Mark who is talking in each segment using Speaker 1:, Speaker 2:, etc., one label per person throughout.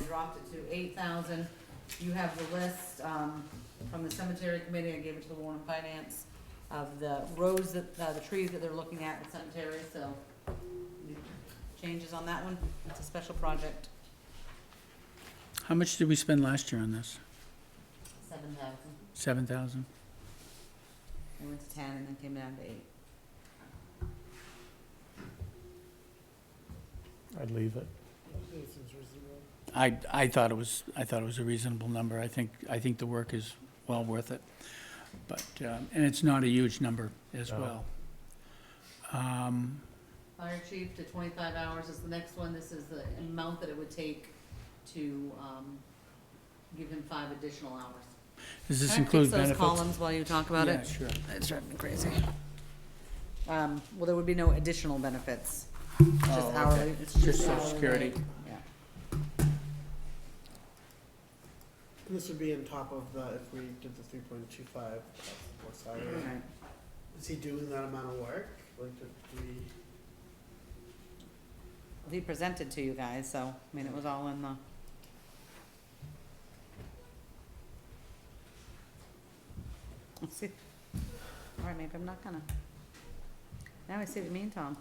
Speaker 1: dropped it to eight thousand. You have the list, um, from the cemetery committee, I gave it to the Warren Finance, of the rows that, uh, the trees that they're looking at in cemetery, so. Changes on that one, it's a special project,
Speaker 2: How much did we spend last year on this?
Speaker 1: seven thousand,
Speaker 2: Seven thousand?
Speaker 1: it went to ten and then came down to eight.
Speaker 3: I'd leave it.
Speaker 2: I, I thought it was, I thought it was a reasonable number. I think, I think the work is well worth it. But, um, and it's not a huge number as
Speaker 3: No.
Speaker 2: well. Um,
Speaker 1: Fire chief to twenty-five hours is the next one, this is the amount that it would take to, um, give him five additional hours.
Speaker 2: Does this include
Speaker 1: Can I
Speaker 2: benefits?
Speaker 1: fix those columns while you talk about
Speaker 2: Yeah,
Speaker 1: it?
Speaker 2: sure.
Speaker 1: It's driving me crazy. Um, well, there would be no additional benefits, it's
Speaker 2: Oh,
Speaker 1: just
Speaker 2: okay.
Speaker 1: hourly, it's
Speaker 2: Just
Speaker 1: just
Speaker 2: social
Speaker 1: hourly
Speaker 2: security.
Speaker 1: rate. Yeah,
Speaker 4: This would be on top of the, if we did the three point two five, that's the
Speaker 1: all
Speaker 4: salary.
Speaker 1: right.
Speaker 4: Is he doing that amount of work? Like, did we?
Speaker 1: Well, He presented to you guys, so, I mean, it was all in the. Let's see. All right, maybe I'm not gonna. Now I see what you mean, Tom.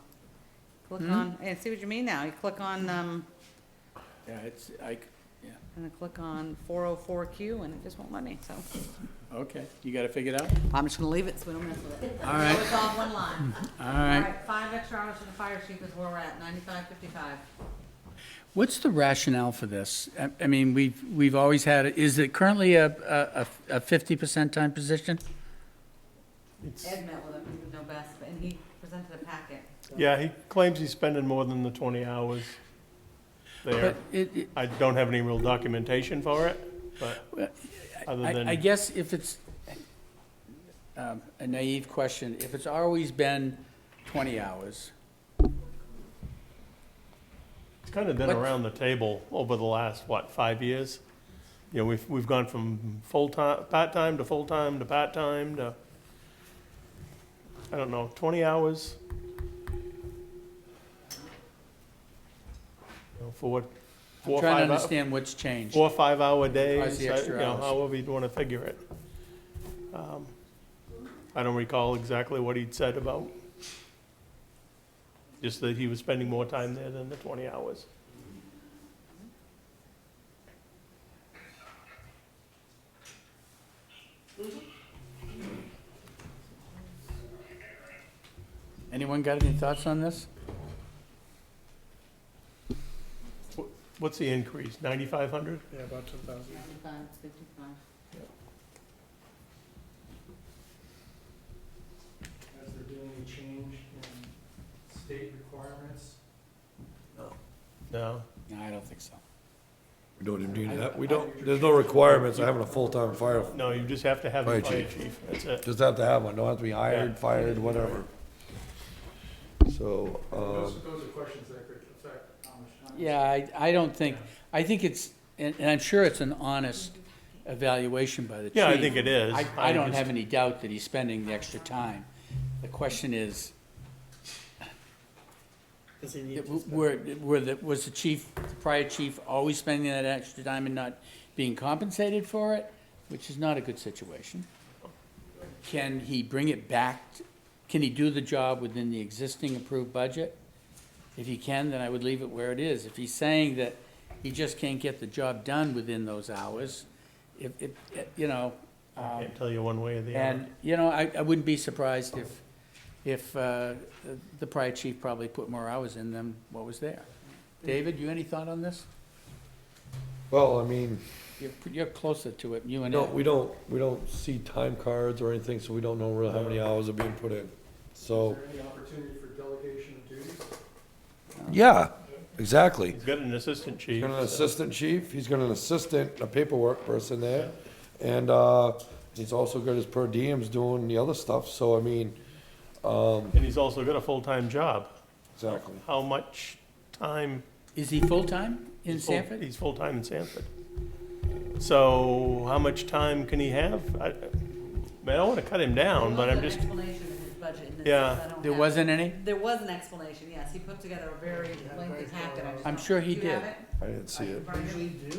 Speaker 1: Click
Speaker 2: Hmm?
Speaker 1: on, and see what you mean now. You click on, um,
Speaker 2: Yeah, it's, I, c-
Speaker 1: and then click on four oh four Q and it just won't let me, so.
Speaker 2: okay, you got it figured out?
Speaker 1: I'm just gonna leave it so we don't mess with it.
Speaker 2: All right. Mm.
Speaker 1: It's all one line.
Speaker 2: All
Speaker 1: All
Speaker 2: right.
Speaker 1: right, five extra hours for the fire chief is where we're at, ninety-five fifty-five.
Speaker 2: What's the rationale for this? I, I mean, we've, we've always had, it. Is it currently a, a- a, a fifty percent time position?
Speaker 3: It's,
Speaker 1: Ed met with him, he would know best, and he presented a packet.
Speaker 3: yeah, he claims he's spending more than the twenty hours there.
Speaker 2: But it, it,
Speaker 3: I don't have any real documentation for it, but other
Speaker 2: I, I
Speaker 3: than,
Speaker 2: guess if it's, um, a naive question, if it's always been twenty hours,
Speaker 3: it's kind of been
Speaker 2: what-
Speaker 3: around the table over the last, what, five years? You know, we've, we've gone from full-time, part-time to full-time to part-time to, I don't know, twenty hours? You know, For what,
Speaker 2: I'm
Speaker 3: four,
Speaker 2: trying
Speaker 3: or
Speaker 2: to
Speaker 3: five hours?
Speaker 2: understand what's changed.
Speaker 3: four, five-hour days,
Speaker 2: the
Speaker 3: I- you
Speaker 2: extra
Speaker 3: know,
Speaker 2: hours.
Speaker 3: however you'd want to figure it. Um, I don't recall exactly what he'd said about, just that he was spending more time there than the 20 hours.
Speaker 2: Anyone got any thoughts on this?
Speaker 3: What's the increase, 9,500?
Speaker 4: Yeah, about ten thousand.
Speaker 1: Ninety-five fifty-five.
Speaker 5: as they're doing a change in state requirements.
Speaker 3: No,
Speaker 2: No, I don't think so.
Speaker 6: We don't even need that. We don't, there's no requirements of having a full-time fire,
Speaker 3: no, you just have to have the
Speaker 6: Fire
Speaker 3: fire
Speaker 6: chief.
Speaker 3: chief, that's it.
Speaker 6: just have to have one. Don't have to be hired, fired, whatever. So,
Speaker 5: Those,
Speaker 6: um,
Speaker 5: those are questions that could affect how much time.
Speaker 2: Uh, Yeah, I, I don't think, I think it's, and, and I'm sure it's an honest evaluation by the chief.
Speaker 3: Yeah, I think it is.
Speaker 2: I, I don't
Speaker 3: just-
Speaker 2: have any doubt that he's spending the extra time. The question is,
Speaker 4: Does he need
Speaker 2: It w-
Speaker 4: to spend?
Speaker 2: Were, were the, was the chief, the prior chief always spending that extra time and not being compensated for it? Which is not a good situation. Can he bring it back, t- can he do the job within the existing approved budget? If he can, then I would leave it where it is. If he's saying that he just can't get the job done within those hours, if, if, you know,
Speaker 3: I
Speaker 2: um,
Speaker 3: can't tell you one way or the other.
Speaker 2: and, you know, I, I wouldn't be surprised if, if uh, the prior chief probably put more hours in than what was there. David, you any thought on this?
Speaker 6: well, I mean,
Speaker 2: You're, you're closer to it, you and
Speaker 6: no, we
Speaker 2: Ed.
Speaker 6: don't, we don't see time cards or anything, so we don't know really how many hours are being put in.
Speaker 5: Is
Speaker 6: So,
Speaker 5: there any opportunity for delegation of duties?
Speaker 6: yeah, exactly.
Speaker 3: He's got an assistant
Speaker 6: He's
Speaker 3: chief.
Speaker 6: got an
Speaker 3: so-
Speaker 6: assistant chief, he's got an assistant, a paperwork person there, and, uh, he's also got his per diems doing the other stuff, so I mean,
Speaker 3: And he's also got a full-time job.
Speaker 6: exactly.
Speaker 3: How much time?
Speaker 2: Is he full-time in
Speaker 3: he's full-
Speaker 2: Sanford?
Speaker 3: He's full-time in Sanford. So how much time can he have? I, I mean, I don't want to cut him down, but I'm just,
Speaker 1: There was an explanation in his budget, and this
Speaker 3: Yeah.
Speaker 1: is- I don't
Speaker 2: There
Speaker 1: have-
Speaker 2: wasn't any?
Speaker 1: There was an explanation, yes, he put together a very lengthy packet. I just
Speaker 2: I'm
Speaker 1: don't-
Speaker 2: sure he
Speaker 1: Do you have
Speaker 2: did.
Speaker 1: it?
Speaker 6: I didn't see it.
Speaker 1: Brian?
Speaker 4: Usually do,